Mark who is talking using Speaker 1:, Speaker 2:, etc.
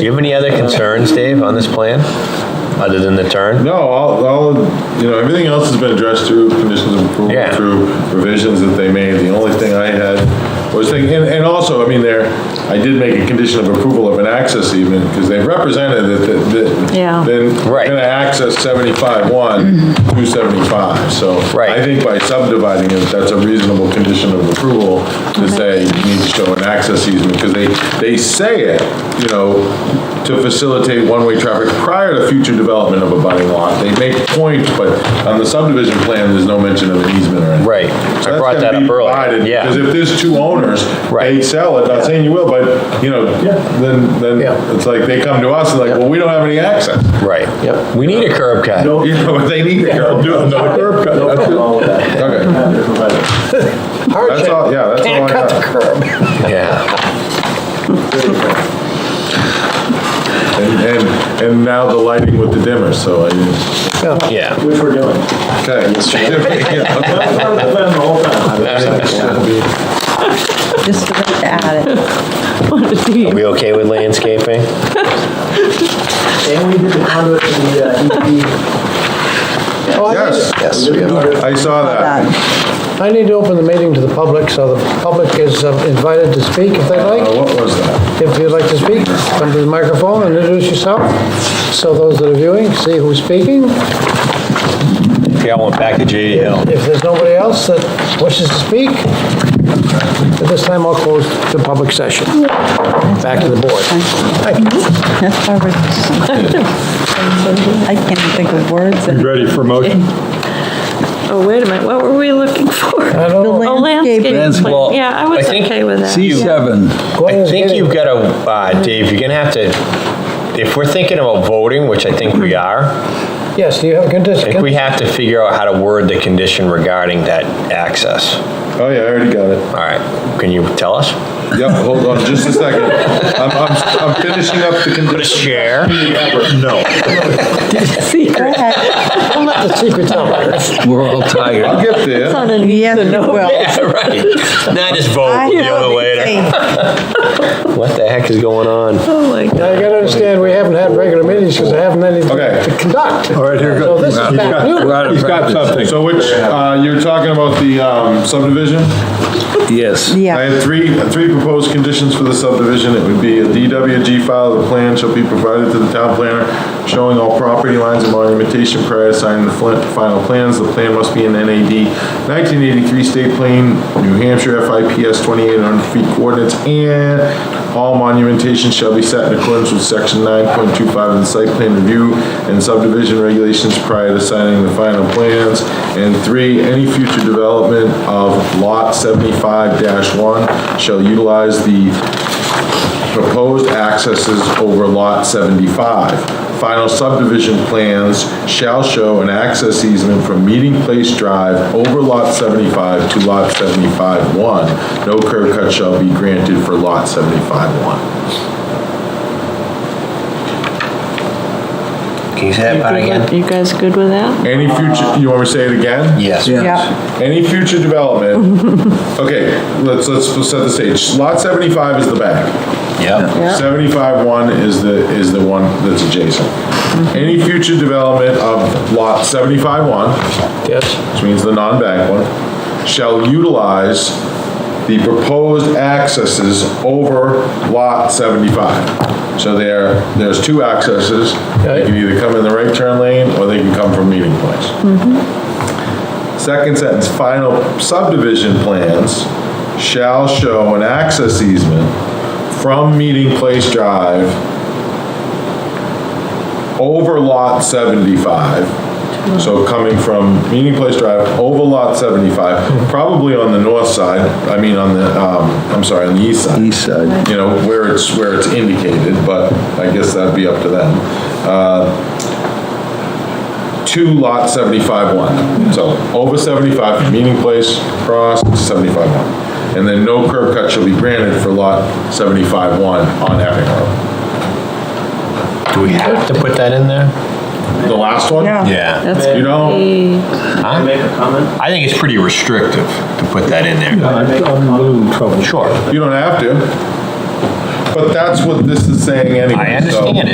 Speaker 1: Do you have any other concerns, Dave, on this plan, other than the turn?
Speaker 2: No, all, all, you know, everything else has been addressed through conditions of
Speaker 1: Yeah.
Speaker 2: approval, through revisions that they made. The only thing I had was thinking, and, and also, I mean, there, I did make a condition of approval of an access even, because they represented that, that, that.
Speaker 3: Yeah.
Speaker 2: Then,
Speaker 1: Right.
Speaker 2: gonna access seventy-five one through seventy-five, so.
Speaker 1: Right.
Speaker 2: I think by subdividing it, that's a reasonable condition of approval to say you need to show an access easement, because they, they say it, you know, to facilitate one-way traffic prior to future development of a budding lot. They make points, but on the subdivision plan, there's no mention of an easement or anything.
Speaker 1: Right. I brought that up earlier.
Speaker 2: Because
Speaker 1: Yeah.
Speaker 2: if there's two owners, they
Speaker 1: Right.
Speaker 2: sell it, not saying you will, but, you know, then, then
Speaker 1: Yeah.
Speaker 2: it's like they come to us and like, well, we don't have any access.
Speaker 1: Right. Yep. We need a curb cut.
Speaker 2: You know, if they need to go do it, no curb cut. that's it. Okay. That's all, yeah, that's all I got.
Speaker 1: Yeah.
Speaker 2: And, and, and now the lighting with the dimmer, so I,
Speaker 1: Yeah.
Speaker 4: Which we're doing.
Speaker 2: okay. Yeah,
Speaker 4: That's part of the plan the whole time.
Speaker 5: Just forgot to add it.
Speaker 1: Are we okay with landscaping?
Speaker 4: And we did the conduit for the uh, EP.
Speaker 6: Oh,
Speaker 2: Yes,
Speaker 6: Yes, we have-
Speaker 2: I saw that.
Speaker 5: That.
Speaker 6: I need to open the meeting to the public, so the public is um, invited to speak if they'd
Speaker 2: Uh,
Speaker 6: like.
Speaker 2: What was that?
Speaker 6: If you'd like to speak, come to the microphone and introduce yourself. So those that are viewing, see who's speaking.
Speaker 1: Yeah, I went back to E JD Hill.
Speaker 6: If there's nobody else that wishes to speak, at this time, I'll close the public session. Back to the board.
Speaker 5: That's why we're- I can't think of words.
Speaker 2: Ready for motion?
Speaker 7: Oh, wait a minute, what were we looking for?
Speaker 6: I don't know.
Speaker 7: Oh, A landscape
Speaker 8: Landscape.
Speaker 7: plan, yeah, I was
Speaker 1: I think-
Speaker 7: okay with that.
Speaker 8: C7,
Speaker 6: Glenn
Speaker 1: I
Speaker 2: Oh,
Speaker 6: is
Speaker 1: think
Speaker 6: getting-
Speaker 1: you've got to, uh, Dave, you're gonna have to, if we're thinking about voting, which I think we are,
Speaker 6: Yes, you have a
Speaker 1: I think we
Speaker 6: condition.
Speaker 1: have to figure out how to word the condition regarding that access.
Speaker 2: Oh, yeah, I already got it.
Speaker 1: All right, can you tell us?
Speaker 2: Yep, hold on just a second. I'm, I'm, I'm finishing up the condition.
Speaker 1: Share.
Speaker 2: No.
Speaker 5: Go ahead.
Speaker 6: Don't let the secrets out.
Speaker 8: we're all tired.
Speaker 2: I'll get there.
Speaker 5: Yes, you will.
Speaker 1: Yeah, right. Now just
Speaker 5: I
Speaker 1: vote, deal
Speaker 5: know
Speaker 1: with it later.
Speaker 5: the
Speaker 1: What the heck is going on?
Speaker 7: Oh, my God.
Speaker 6: Now, you gotta understand, we haven't had regular meetings because I haven't anything
Speaker 2: Okay.
Speaker 6: to conduct. All right, here
Speaker 8: go-
Speaker 6: So this is
Speaker 8: He's
Speaker 6: bad news.
Speaker 8: We're out of practice.
Speaker 2: So which, uh, you're talking about the um, subdivision?
Speaker 8: Yes.
Speaker 2: I
Speaker 5: thing. Yeah,
Speaker 2: had three, three proposed conditions for the subdivision. It would be a DWG file, the plan shall be provided to the town planner showing all property lines and monumentation prior to signing the fl- final plans. The plan must be an NAD 1983 state plan, New Hampshire FIPS 2800 feet coordinates, and all monumentation shall be set in accordance with section 9.25 of the site plan review and subdivision regulations prior to signing the final plans. And three, any future development of lot 75-1 shall utilize the proposed accesses over lot 75. Final subdivision plans shall show an access easement from Meeting Place Drive over lot 75 to lot 75-1. No curb cut shall be granted for lot 75-1.
Speaker 1: Can you say that part again?
Speaker 7: You guys good with that?
Speaker 2: Any future, you want me to say it again?
Speaker 1: Yes.
Speaker 5: yeah,
Speaker 2: Any future development, okay, let's, let's set the stage. Lot 75 is the back.
Speaker 1: Yep.
Speaker 2: 75-1 is the, is the one that's adjacent. Any future development of lot 75-1,
Speaker 6: Yes,
Speaker 2: which means the non-bank one, shall utilize the proposed accesses over lot 75. So there, there's two accesses. They can either come in the right turn lane, or they can come from meeting place. Second sentence, final subdivision plans shall show an access easement from Meeting Place Drive over lot 75. So coming from Meeting Place Drive over lot 75, probably on the north side, I mean, on the, um, I'm sorry, on the east side
Speaker 8: East side.
Speaker 2: you know, where it's, where it's indicated, but I guess that'd be up to them. Uh, To lot 75-1, so over 75 from Meeting Place, cross 75-1. And then no curb cut shall be granted for lot 75-1 on Epping Road.
Speaker 1: Do we have to put that in there?
Speaker 2: The last one?
Speaker 5: yeah.
Speaker 1: Yeah.
Speaker 7: That's
Speaker 2: You know,
Speaker 7: pretty-
Speaker 4: Can I make a comment?
Speaker 1: I think it's pretty restrictive to put that in there.
Speaker 4: Can I make a comment?
Speaker 1: Sure.
Speaker 2: you don't have to.
Speaker 9: But that's what this is saying anyway.
Speaker 2: I
Speaker 9: so-
Speaker 2: understand it.